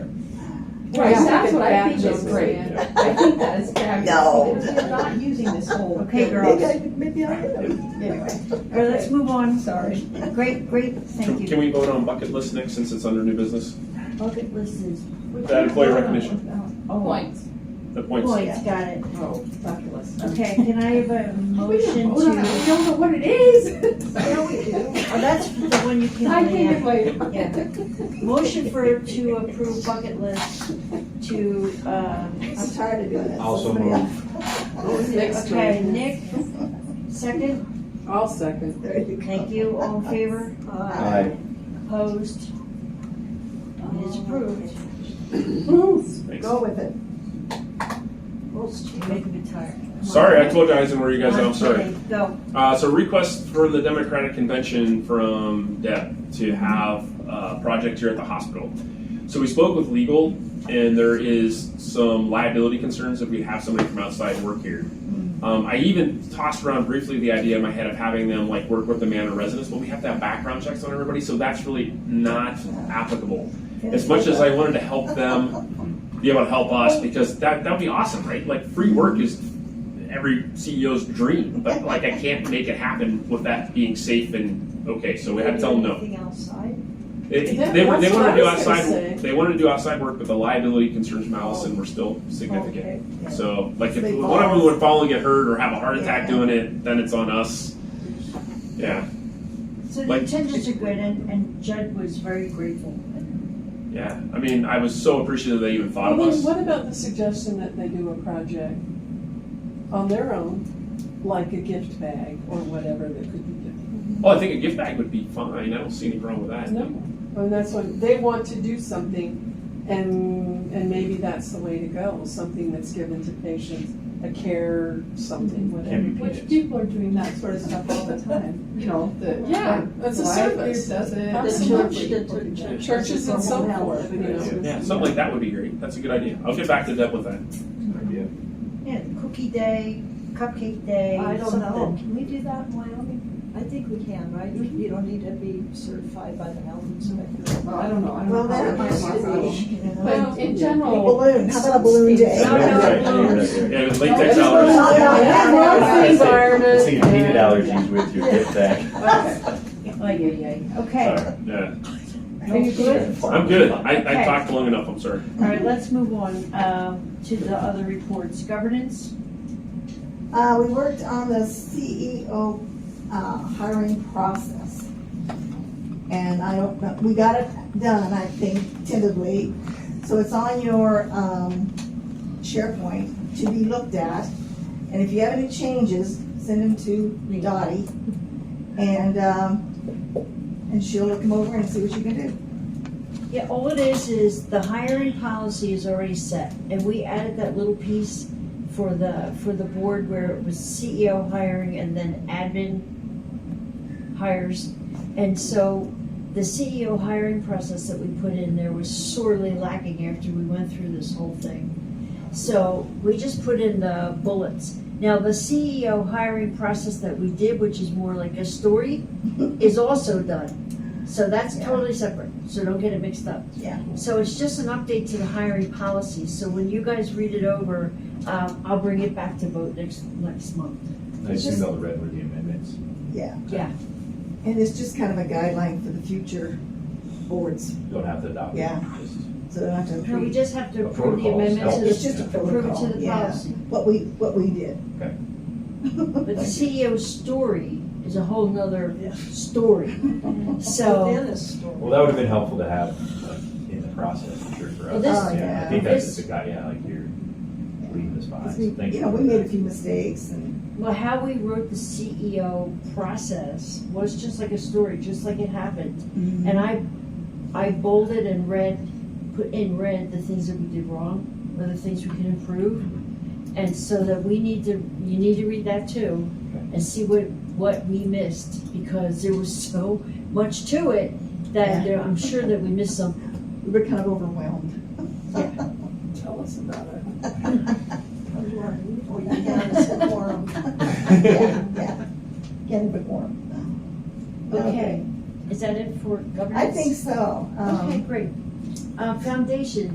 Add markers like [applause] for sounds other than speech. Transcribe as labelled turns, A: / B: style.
A: Right,
B: Yeah.
A: that's what I think
B: Back
A: is
B: to
A: great.
B: Korea.
A: I think that is fabulous.
C: No.
A: Because you're not using this whole.
D: Okay,
C: Maybe
D: girls,
C: I, maybe I am.
A: Anyway,
D: all right, let's move on.
A: sorry.
D: Great, great, thank
E: Can
D: you.
E: we vote on bucket list next, since it's under new business?
D: Bucket list is
E: That employee recognition,
A: Oh,
B: Points.
E: the points.
D: points, got it.
A: oh, fabulous.
D: Okay, can I have a motion
A: Hold on, I
D: to?
A: don't know what it is. No, we do.
D: Oh, that's the one you can
A: I
D: only
A: came in
D: have.
A: later.
D: Yeah. Motion for, to approve bucket list to, uh,
C: I'm tired of doing this.
F: Also
C: Somebody else.
A: Next to
D: okay,
A: it.
D: Nick, second,
B: I'll second.
C: There you go.
D: thank you, all in favor,
F: Aye.
D: opposed? It is approved.
E: Thanks.
C: Go with it.
D: You make me tired.
E: Sorry, I told you I was in where you guys are, I'm sorry.
D: Okay, Go.
E: Uh, so request from the Democratic Convention from Deb to have a project here at the hospital. So we spoke with legal, and there is some liability concerns if we have somebody from outside work here. Um, I even tossed around briefly the idea in my head of having them like work with the Manor residents, but we have to have background checks on everybody, so that's really not applicable. As much as I wanted to help them be able to help us, because that that'd be awesome, right? Like free work is every CEO's dream, but like I can't make it happen with that being safe and okay. So we had to tell them no.
D: Anything outside?
E: They,
B: Yeah,
E: they, were- they
B: that's what
E: wanted
B: I
E: to do
B: was gonna say.
E: outside. They wanted to do outside work, but the liability concerns from Allison were still
B: Oh,
E: significant. So like if
C: They
E: one of them
C: fall.
E: would fall and get hurt or have a heart attack
C: Yeah.
E: doing it, then it's on us. Yeah,
D: So the
E: Like-
D: intentions are good, and, and Judd was very grateful.
E: yeah. I mean, I was so appreciative they even thought
B: I
E: of
B: mean,
E: us.
B: what about the suggestion that they do a project on their own, like a gift bag or whatever that could be given?
E: Oh, I think a gift bag would be fine. I don't see any problem with that.
B: No, and that's what, they want to do something, and, and maybe that's the way to go, something that's given to patients, a care, something, whatever.
E: Can be
G: Which
E: PJs.
G: people are doing that sort of stuff all the time, you know, the.
B: Yeah, it's a
G: the library
B: service.
G: Does it.
B: Absolutely. Churches and so forth, you know.
E: Yeah, something like that would be great. That's a good idea. I'll get back to Deb with that.
F: Idea.
D: Yeah, cookie day, cupcake day,
C: I don't know,
D: something.
C: can we do that in Wyoming? I think we can, right? You
D: Mm-hmm.
C: you don't need to be certified by the health inspector.
G: Well, I don't know, I don't know.
C: Well, that
G: Might
C: might
G: be my problem.
C: be, you know.
G: But in general.
C: Balloon, how about a balloon day?
A: No, no,
E: Right,
A: no.
E: Yeah, latex
A: No,
E: allergies.
C: no, no.
F: Just think of peanut allergies with your gift bag.
D: Ay, ay, ay. Okay,
E: Sorry, yeah.
D: are you good?
E: I'm good. I,
D: Okay.
E: I talked long enough, I'm sorry.
D: All right, let's move on um, to the other reports. Governance,
C: Uh, we worked on the CEO, uh, hiring process. And I don't know, we got it done, I think, tentatively. So it's on your, um, SharePoint to be looked at. And if you have any changes, send them to Dottie. And, um, and she'll look them over and see what you can do.
D: yeah, all it is, is the hiring policy is already set. And we added that little piece for the, for the board where it was CEO hiring and then admin hires. And so the CEO hiring process that we put in there was sorely lacking after we went through this whole thing. So we just put in the bullets. Now, the CEO hiring process that we did, which is more like a story, is also done. So that's
C: Yeah.
D: totally separate, so don't get it mixed up.
C: Yeah.
D: So it's just an update to the hiring policy, so when you guys read it over, um, I'll bring it back to vote next, next month.
F: I assumed all the red were the amendments.
C: And it's just kind of a guideline for the future boards,
F: You don't have to adopt. it.
C: Yeah.
F: Just-
C: so they don't have to
D: Now, we
C: approve
D: just have to
F: The
D: approve the
F: protocols
D: amendments,
F: help.
C: It's
D: as-
C: just a
D: approve it to
C: protocol,
D: the
C: yeah,
D: policy.
C: what we, what we did.
F: Okay.
C: [laughs]
D: But the CEO story is a whole nother story, so.
F: Well, that would have been helpful to have like, in the process, for sure, for
D: Well,
F: us.
D: this-
F: Yeah, I think that's just a guy, yeah, like you're leaving this behind.
C: Because
F: so
C: we,
F: thank
C: you know,
F: for
C: we made
F: that.
C: a few mistakes and,
D: Well, how we wrote the CEO process was just like a story, just like it happened. And I, I bolded and read, put in red the things that we did wrong, or the things we can improve. And so that we need to, you need to read that too, and see what, what we missed, because there was so much to it that there, I'm sure that we missed some.
C: [laughs] we were kind of overwhelmed. [laughs]
B: Tell us about it.
C: Oh, you can't have a
F: [laughs]
C: quorum. [laughs] Yeah, yeah, can't have a quorum.
D: Okay, is that it for governance?
C: I think so. Um,
D: Okay, great. Uh, foundation,